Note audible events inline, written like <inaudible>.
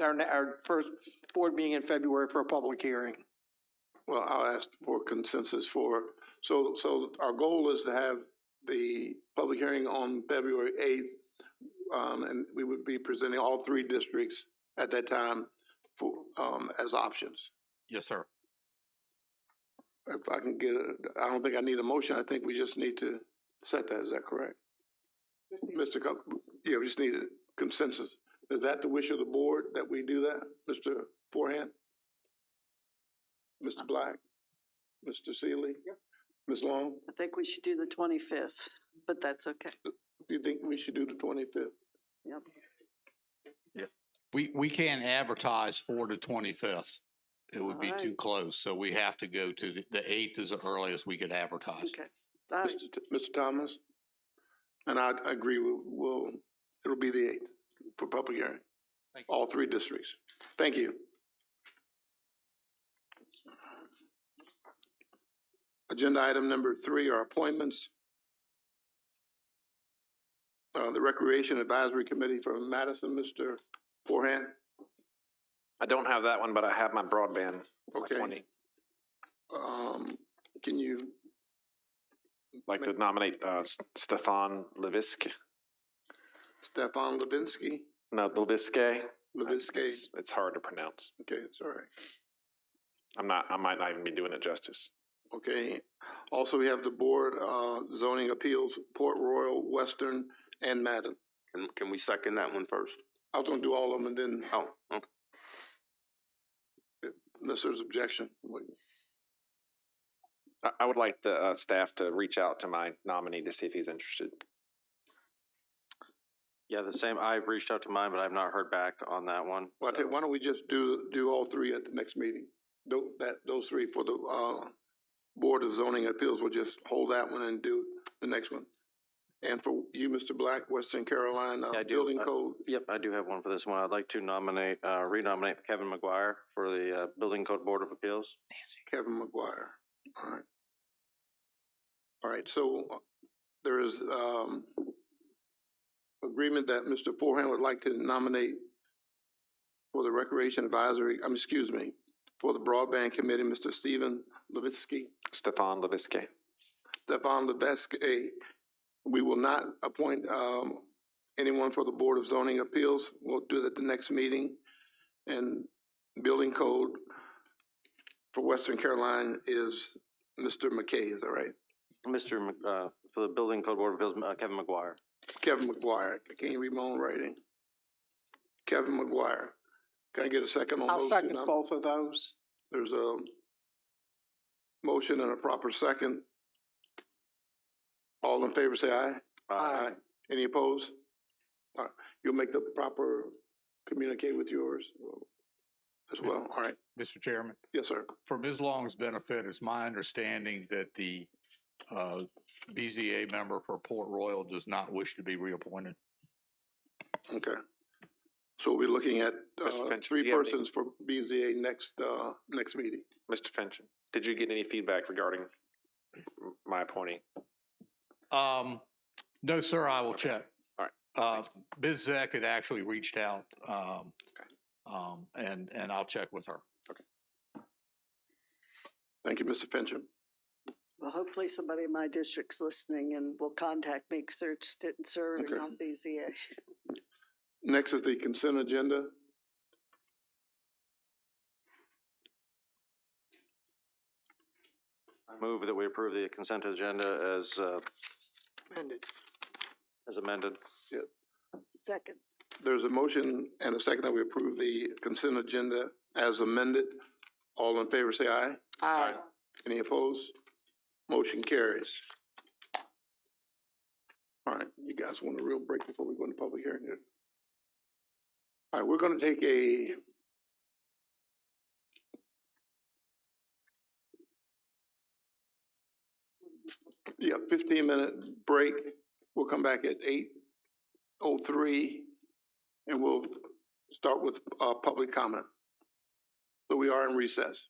our, our first board meeting in February for a public hearing. Well, I'll ask for consensus for, so, so our goal is to have the public hearing on February eighth. Um, and we would be presenting all three districts at that time for, um, as options. Yes, sir. If I can get, a- I don't think I need a motion, I think we just need to set that, is that correct? Mr. Cup, yeah, we just need a consensus. Is that the wish of the board that we do that, Mr. Forehand? Mr. Black? Mr. Seeley? Ms. Long, I think we should do the twenty-fifth, but that's okay. do you think we should do the twenty-fifth? Yep. We, we can't advertise for the twenty-fifth. It would be Alright. too close, so we have to go to, the- the eighth is the earliest we could advertise. Okay. All right. Mr. T- Mr. Thomas? And I I agree, we'll, we'll, it'll be the eighth for public hearing, Thank all three districts. Thank you. Agenda item number three are appointments. Uh, the Recreation Advisory Committee for Madison, Mr. Forehand, I don't have that one, but I have my broadband. my Okay. 20. um, can you, Like to nominate, uh, S- Stefan Levisk, Stefan Levinsky, no, Leviske. Levinsky, It's- It's hard to pronounce. okay, it's all right. I'm not, I might not even be doing it justice. Okay, also we have the Board, uh, Zoning Appeals, Port Royal, Western, and Madden. Can, can we second that one first? I was gonna do all of them and then, Oh, okay. unless there's objection. I, I would like the, uh, staff to reach out to my nominee to see if he's interested. Yeah, the same, I've reached out to mine, but I've not heard back on that one. Why don't, why don't we just do, do all three at the next meeting? Tho- that, those three for the, uh, Board of Zoning Appeals, we'll just hold that one and do the next one. And for you, Mr. Black, Western Carolina, Yeah, I uh, do, Building uh, Code, Yep, I do have one for this one. I'd like to nominate, uh, renominate Kevin McGuire for the, uh, Building Code Board of Appeals. Kevin McGuire. All right. All right, so uh, there is, um, agreement that Mr. Forehand would like to nominate for the Recreation Advisory, um, excuse me, for the Broadband Committee, Mr. Stephen Levitsky, Stefan Leviske. Stefan Levitsky. We will not appoint, um, anyone for the Board of Zoning Appeals. We'll do it at the next meeting. And Building Code for Western Carolina is Mr. McKay, is that right? Mr. Mc- uh, for the Building Code Board of Appeals, uh, Kevin McGuire. Kevin McGuire. I can't read my own writing. Kevin McGuire. Can I get a second on I'll those two second nom- both of those. There's a motion and a proper second. All in favor, say aye. Aye. Any opposed? All right, you'll make the proper, communicate with yours as well. All right. Mr. Chairman, Yes, sir. for Ms. Long's benefit, it's my understanding that the, uh, BZA member for Port Royal does not wish to be reappointed. Okay. So we'll be looking at, Mr. uh, Finch, do three you have any- persons for BZA next, uh, next meeting. Mr. Finch, did you get any feedback regarding m- my appointee? Um, no, sir, I will check. All right. Uh, Ms. Zek had actually reached out, um, Okay. um, and, and I'll check with her. Thank you, Mr. Fincham. Well, hopefully somebody in my district's listening and will contact me because they're interested in serving Okay. on BZA. Next is the consent agenda. I move that we approve the consent agenda as, uh, as amended. <laughs> Second, There's a motion and a second that we approve the consent agenda as amended. All in favor, say aye. Aye. Any opposed? Motion carries. All right, you guys want a real break before we go into public hearing here? All right, we're gonna take a yeah, fifteen minute break. We'll come back at eight oh three and we'll start with, uh, public comment. So we are in recess.